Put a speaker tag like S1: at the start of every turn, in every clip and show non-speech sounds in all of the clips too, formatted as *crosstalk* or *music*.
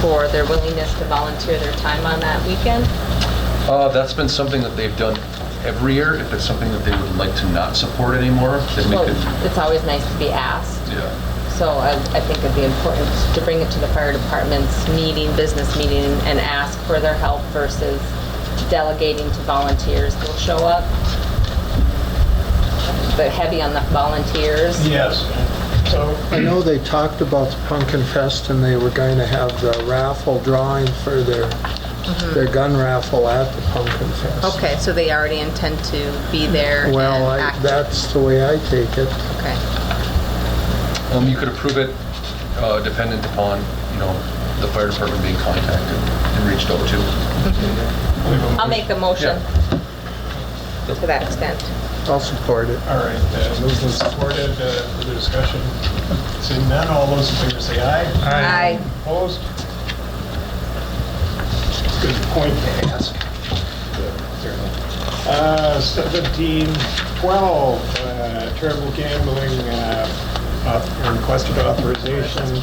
S1: for their willingness to volunteer their time on that weekend?
S2: Uh, That's been something that they've done every year. If it's something that they would like to not support anymore, then we
S1: Well,
S2: could,
S1: it's always nice to be asked,
S2: yeah.
S1: so I, I think it'd be important to bring it to the fire department's meeting, business meeting, and ask for their help versus delegating to volunteers who'll show up. But heavy on the volunteers.
S3: Yes. So,
S4: I know they talked about the Pumpkin Fest and they were going to have the raffle drawing for their, their gun raffle at the Pumpkin Fest.
S1: Okay, so they already intend to be there and
S4: Well, I-
S1: act?
S4: that's the way I take it.
S1: Okay.
S2: Um, You could approve it uh, dependent upon, you know, the fire department being contacted and reached out to.
S1: I'll make a motion to that extent.
S4: I'll support it.
S3: all right, uh, moved and supported, uh, further discussion. Seeing none, all those in favor say aye.
S1: Aye.
S3: Opposed? Good point to ask. Uh, 1712, uh, charitable gambling, uh, auth- requested authorization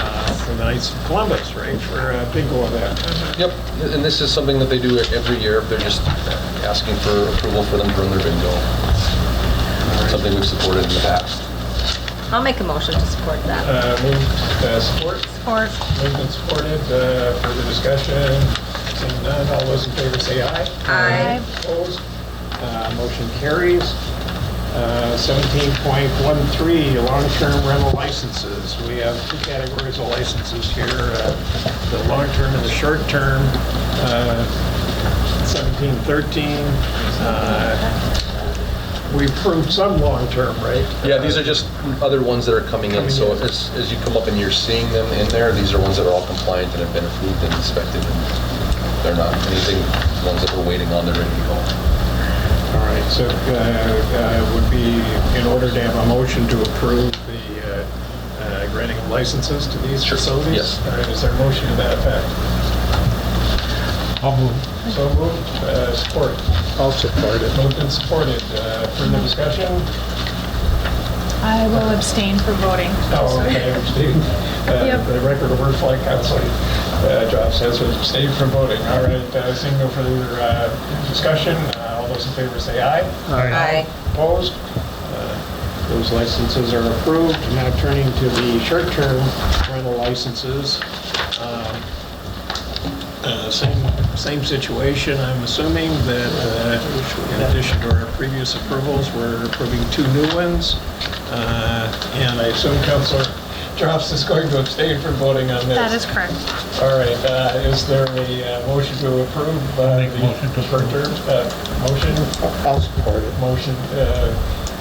S3: uh, for the Knights of Columbus, right, for a bingo event.
S1: Mm-hmm.
S2: Yep, and this is something that they do every year. They're just asking for approval for them to run their bingo. Something we've supported in the past.
S1: I'll make a motion to support that.
S3: Uh, Moved, uh, support?
S1: Support.
S3: Moved and supported, uh, further discussion, seeing none, all those in favor say aye.
S1: Aye.
S3: Opposed, Uh, motion carries. Uh, 17.13, long-term rental licenses. We have two categories of licenses here, uh, the long-term and the short-term. Uh, 17.13, uh, we approved some long-term, right?
S2: Yeah, these are just other ones that are coming in, so as, as you come up and you're seeing them in there, these are ones that are all compliant and have been approved and inspected, and they're not anything, ones that we're waiting on, they're ready to go.
S3: All right, so uh, uh, would be in order to have a motion to approve the uh, uh, granting of licenses to these
S2: Sure,
S3: facilities?
S2: yes.
S3: All right, is there a motion to that effect?
S4: I'll move.
S3: So moved, uh, support.
S4: I'll support it.
S3: Moved and supported. Uh, Further discussion?
S5: I will abstain from voting.
S3: Oh, okay, abstained. Uh,
S5: Yep.
S3: For the record, a word flag council, uh, Job says abstained from voting. All right, uh, seeing no further uh, discussion, uh, all those in favor say aye.
S1: Aye.
S3: Opposed? Uh, Those licenses are approved. Now turning to the short-term rental licenses. Um, uh, Same, same situation, I'm assuming that uh, in addition to our previous approvals, we're approving two new ones. Uh, And I assume Counselor Drops is going to abstain from voting on this.
S5: That is correct.
S3: All right, uh, is there a uh, motion to approve? uh,
S6: Make a
S3: the
S6: motion to approve.
S3: short-term, uh, Motion?
S4: I'll support it.
S3: Motion uh,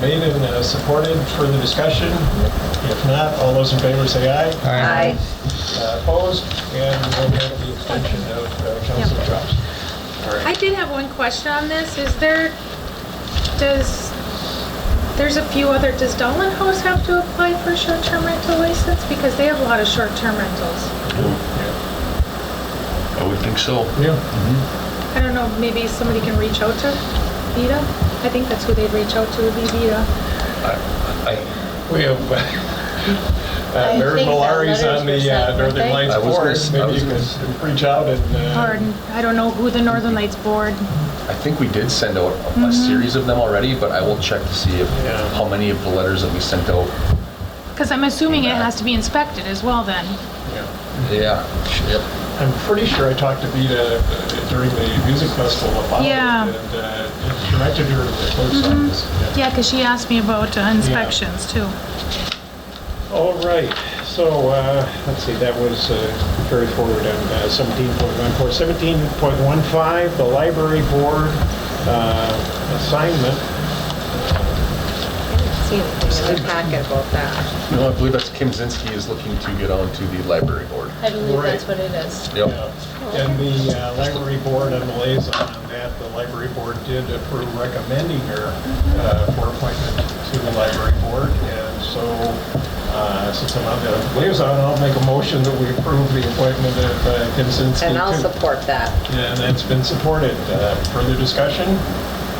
S3: made and uh, supported. Further discussion? If not, all those in favor say aye.
S1: Aye.
S3: Uh, Opposed? And we'll have the extension of uh, Councilor Drops. All
S5: I
S3: right.
S5: did have one question on this. Is there, does, there's a few other, does Dolan House have to apply for a short-term rental license? Because they have a lot of short-term rentals.
S2: I would think so.
S3: Yeah.
S5: I don't know, maybe somebody can reach out to Vida? I think that's who they'd reach out to, would be Vida.
S2: I,
S3: We have *laughs* uh, uh, Mayor
S1: think that
S3: Malari's on
S1: letters were sent, weren't
S3: the uh, Northern
S1: they?
S3: Lights
S2: I was
S3: Board.
S2: gonna- I
S3: Maybe
S2: was
S3: you can reach out and... uh,
S5: Pardon, I don't know who the Northern Lights Board,
S2: I think we did send out a- a series of them already, but I will check to see if,
S3: Yeah.
S2: how many of the letters that we sent out.
S5: because I'm assuming it has to be inspected as well then.
S3: yeah.
S2: Yeah, yep.
S3: I'm pretty sure I talked to Vita uh, during the music festival about it.
S5: Yeah.
S3: And uh, directed her to the clerk's office. Yeah.
S5: Yeah, because she asked me about uh, inspections too.
S3: All right, so, uh, let's see, that was uh, carried forward on uh, 17.14. 17.15, the library board uh, assignment.
S1: I didn't see anything in the packet about that.
S2: No, I believe that's Kim Zinsky is looking to get onto the library board.
S1: I believe
S3: that's
S1: what it is.
S2: Yep.
S3: And the uh, library board and the liaison on that, the library board did approve recommending her uh, for appointment to the library board. And so, uh, since I'm on the liaison, I'll make a motion that we approve the appointment of uh, Kim Zinsky.
S1: And I'll
S3: to-
S1: support that.
S3: And that's been supported. Uh, Further discussion?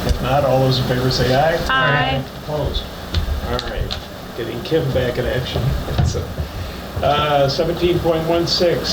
S3: If not, all those in favor say aye.
S5: Aye.
S3: Opposed? All *laughs* right, getting Kim back in action. Uh, 17.16,